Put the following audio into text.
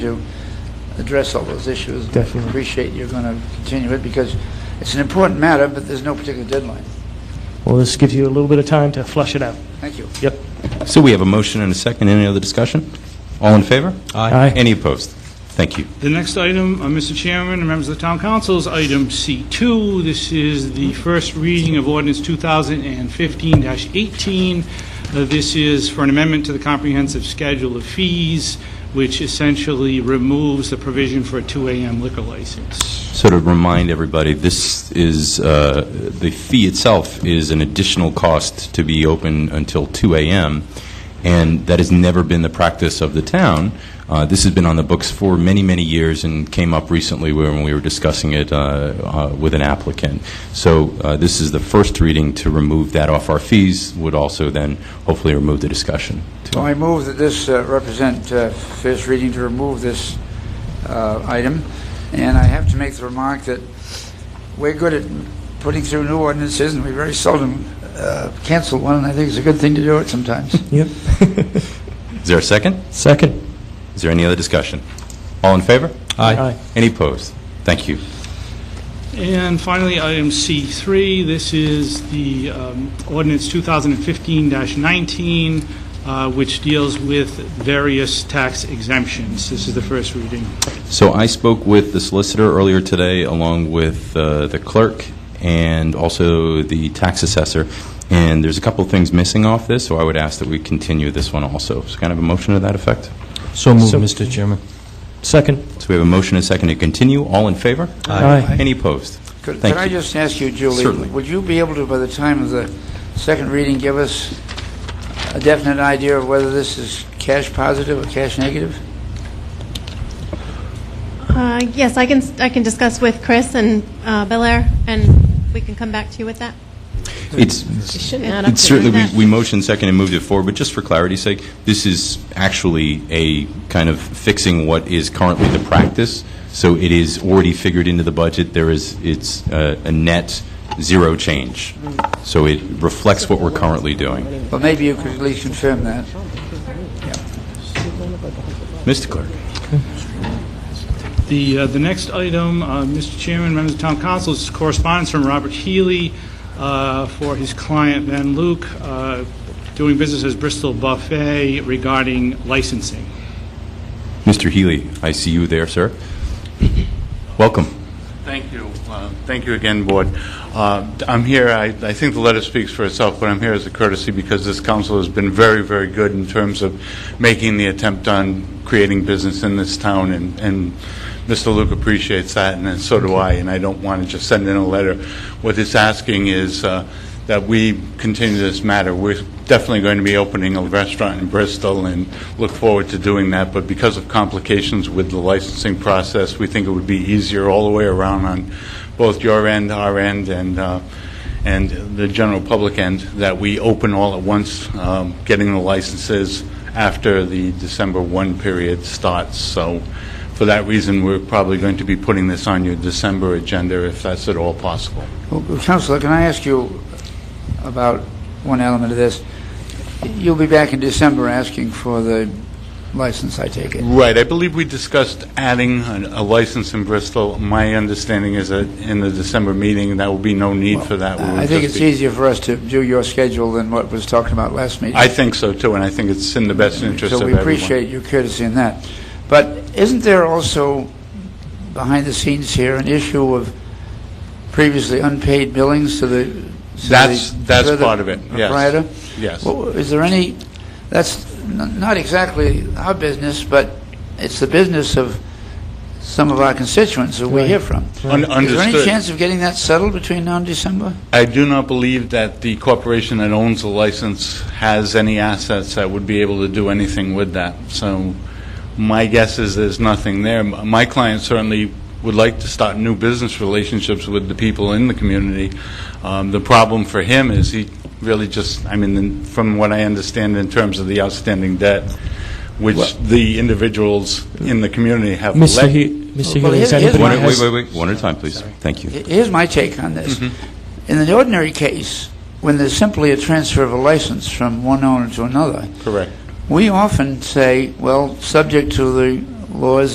to address all those issues. Definitely. Appreciate you're going to continue it, because it's an important matter, but there's no particular deadline. Well, this gives you a little bit of time to flush it out. Thank you. Yep. So we have a motion and a second. Any other discussion? All in favor? Aye. Any opposed? Thank you. The next item, uh, Mr. Chairman and members of the Town Council, is item C2. This is the first reading of ordinance 2015-18. Uh, This is for an amendment to the comprehensive schedule of fees, which essentially removes the provision for a 2 AM liquor license. So to remind everybody, this is, uh, the fee itself is an additional cost to be open until 2 a.m., and that has never been the practice of the town. Uh, This has been on the books for many, many years and came up recently when we were discussing it uh, uh, with an applicant. So uh, this is the first reading to remove that off our fees, would also then hopefully remove the discussion. too. So I move that this uh, represent uh, first reading to remove this uh, item, and I have to make the remark that we're good at putting through new ordinances, and we very seldom uh, cancel one, and I think it's a good thing to do it sometimes. Yep. Is there a second? Second. Is there any other discussion? All in favor? Aye. Any opposed? Thank you. And finally, item C3, this is the um, ordinance 2015-19, uh, which deals with various tax exemptions. This is the first reading. So I spoke with the solicitor earlier today, along with uh, the clerk and also the tax assessor, and there's a couple of things missing off this, so I would ask that we continue this one also. So can I have a motion to that effect? So moved, So- Mr. Chairman. Second. So we have a motion and a second to continue. All in favor? Aye. Aye. Any opposed? Could Thank could I you. just ask you, Julie? Certainly. Would you be able to, by the time of the second reading, give us a definite idea of whether this is cash positive or cash negative? Uh, Yes, I can, I can discuss with Chris and uh, Belair, and we can come back to you with that. It's It's Certainly, we- we motioned second and moved it forward, but just for clarity's sake, this is actually a kind of fixing what is currently the practice, so it is already figured into the budget, there is, it's uh, a net zero change, so it reflects what we're currently doing. Well, maybe you could at least confirm that. Mr. Clerk? The, uh, the next item, uh, Mr. Chairman, members of town council, is correspondence from Robert Healy uh, for his client Van Luke, uh, doing business as Bristol Buffet regarding licensing. Mr. Healy, I see you there, sir. Welcome. Thank you. Uh, Thank you again, Board. Uh, I'm here, I I think the letter speaks for itself, but I'm here as a courtesy because this council has been very, very good in terms of making the attempt on creating business in this town, and- and Mr. Luke appreciates that, and so do I, and I don't want to just send in a letter. What it's asking is uh, that we continue this matter. We're definitely going to be opening a restaurant in Bristol and look forward to doing that, but because of complications with the licensing process, we think it would be easier all the way around on both your end, our end, and, uh, and the general public end, that we open all at once, um, getting the licenses after the December 1 period starts. So for that reason, we're probably going to be putting this on your December agenda, if that's at all possible. Well, Counselor, can I ask you about one element of this? You'll be back in December asking for the license, I take it. Right, I believe we discussed adding an- a license in Bristol. My understanding is that in the December meeting, there will be no need for that. We will I think just it's be- easier for us to do your schedule than what was talked about last meeting. I think so, too, and I think it's in the best interest of So we everyone. appreciate your courtesy in that. But isn't there also, behind the scenes here, an issue of previously unpaid billings to the... to the- That's- that's to the part of it, yes. Proprietor? Yes. Well, Is there any, that's n- not exactly our business, but it's the business of some of our constituents who we hear from. Un- Is there any understood. chance of getting that settled between now and December? I do not believe that the corporation that owns the license has any assets that would be able to do anything with that. So my guess is there's nothing there. M- My client certainly would like to start new business relationships with the people in the community. Um, The problem for him is he really just, I mean, in- from what I understand in terms of the outstanding debt, which the individuals in the community have left. Mr. He, Mr. Well, Healy, here's- is here's anybody my- One- has... Wait, wait, wait, one at a time, please. Thank you. Here's my take on this. In an ordinary case, when there's simply a transfer of a license from one owner to another, Correct. we often say, well, subject to the laws